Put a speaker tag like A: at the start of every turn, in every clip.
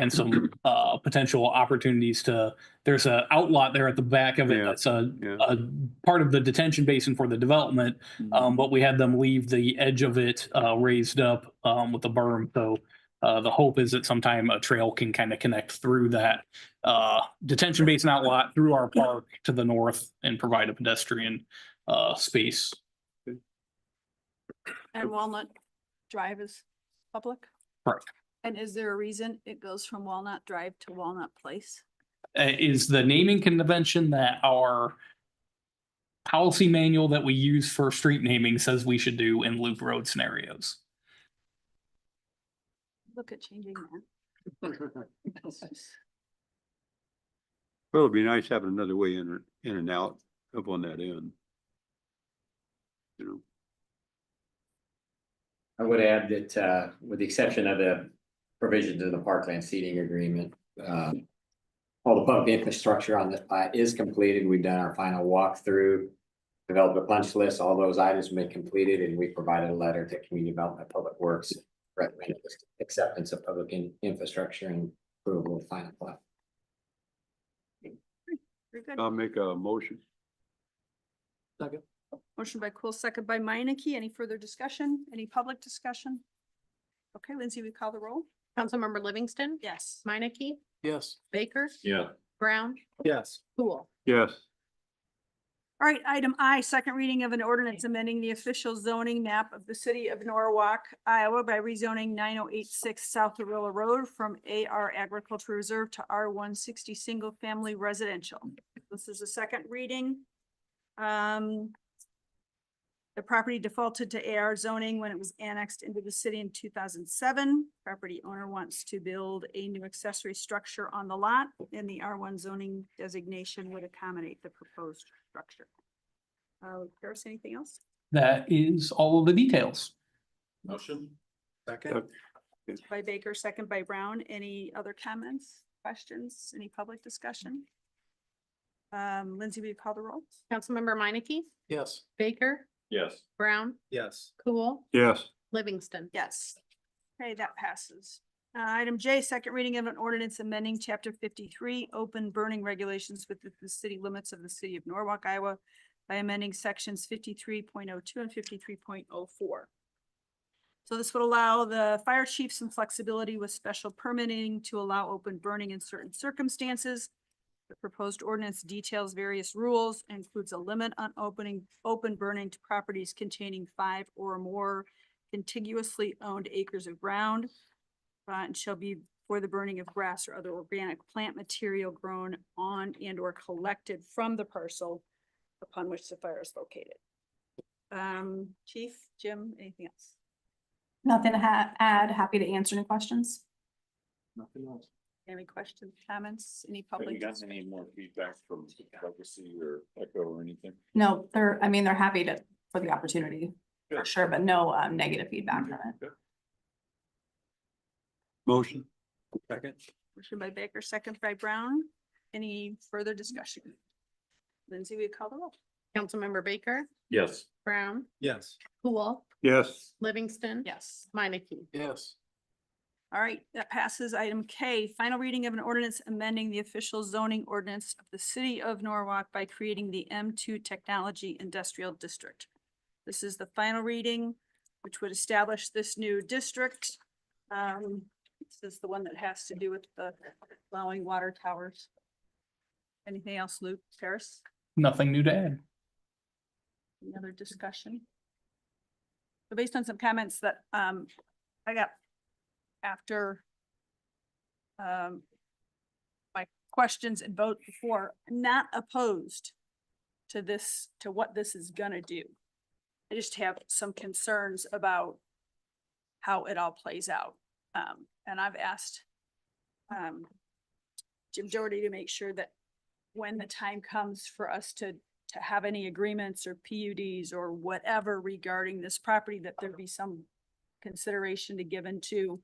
A: and some uh, potential opportunities to, there's a outlot there at the back of it
B: Yeah.
A: that's a,
B: Yeah.
A: a part of the detention basin for the development.
C: Mm-hmm.
A: Um, but we had them leave the edge of it, uh, raised up, um, with a berm. So, uh, the hope is that sometime a trail can kind of connect through that, uh, detention basin outlot through our park to the north and provide a pedestrian, uh, space.
D: And Walnut Drive is public?
A: Correct.
D: And is there a reason it goes from Walnut Drive to Walnut Place?
A: uh, is the naming convention that our policy manual that we use for street naming says we should do in loop road scenarios.
D: Look at changing that.
B: Well, it'd be nice having another way in, or- in and out up on that end. You know,
E: I would add that, uh, with the exception of the provisions in the parkland seating agreement, uh. All the public infrastructure on this plat is completed. We've done our final walkthrough. Developed a punch list. All those items have been completed and we provided a letter to Community Development Public Works. Recommended acceptance of public in- infrastructure and approval of final plat.
D: Very good.
B: I'll make a motion.
D: Motion by Cool, second by Minneke. Any further discussion? Any public discussion? Okay, Lindsay, we call the roll?
F: Councilmember Livingston.
D: Yes.
F: Minneke,
G: Yes.
F: Baker,
G: Yeah.
F: Brown,
G: Yes.
F: Cool.
B: Yes,
D: All right, item I, second reading of an ordinance amending the official zoning map of the city of Norwalk, Iowa by rezoning nine oh eight six South Arilla Road from AR Agriculture Reserve to R one sixty Single Family Residential. This is a second reading. Um, the property defaulted to AR zoning when it was annexed into the city in two thousand seven. Property owner wants to build a new accessory structure on the lot and the R one zoning designation would accommodate the proposed structure. Uh, Paris, anything else?
A: That is all of the details.
G: Motion.
B: Uh,
G: Second.
D: By Baker, second by Brown. Any other comments, questions, any public discussion? Um, Lindsay, will you call the roll?
F: Councilmember Minneke,
G: Yes.
F: Baker,
G: Yes.
F: Brown,
G: Yes.
F: Cool,
B: yes,
F: Livingston.
D: Yes. Okay, that passes. Uh, item J, second reading of an ordinance amending chapter fifty-three, open burning regulations within the city limits of the city of Norwalk, Iowa by amending sections fifty-three point oh two and fifty-three point oh four. So this would allow the fire chief some flexibility with special permitting to allow open burning in certain circumstances. The proposed ordinance details various rules, includes a limit on opening, open burning to properties containing five or more contiguously owned acres of ground. uh, and shall be for the burning of grass or other organic plant material grown on and or collected from the parcel upon which the fire is located. Um, Chief, Jim, anything else?
C: Nothing to ha- add. Happy to answer any questions.
G: Nothing else.
D: Any questions, comments, any public? discussion?
G: more feedback from Legacy or Echo or anything?
C: No, they're, I mean, they're happy to, for the opportunity, for
G: Good.
C: sure, but no um, negative feedback from it.
B: motion,
G: Second.
D: Motion by Baker, second by Brown. Any further discussion? Lindsay, we call the roll.
F: Councilmember Baker,
G: Yes.
F: Brown,
G: Yes.
F: Cool,
B: yes,
F: Livingston.
D: Yes.
F: Minneke.
G: Yes.
D: All right, that passes item K, final reading of an ordinance amending the official zoning ordinance of the city of Norwalk by creating the M two Technology Industrial District. This is the final reading, which would establish this new district. Um, this is the one that has to do with the allowing water towers. Anything else, Luke, Paris,
A: Nothing new to add.
D: any other discussion? So based on some comments that, um, I got after um, my questions and vote before, not opposed to this, to what this is gonna do. I just have some concerns about how it all plays out. Um, and I've asked um, Jim Doherty to make sure that when the time comes for us to, to have any agreements or PUDs or whatever regarding this property, that there be some consideration to given to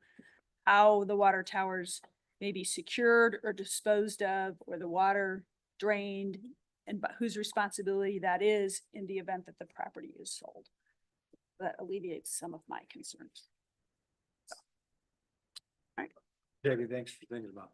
D: how the water towers may be secured or disposed of, or the water drained, and bu- whose responsibility that is in the event that the property is sold. That alleviates some of my concerns. All right,
E: Debbie, thanks for thinking about that.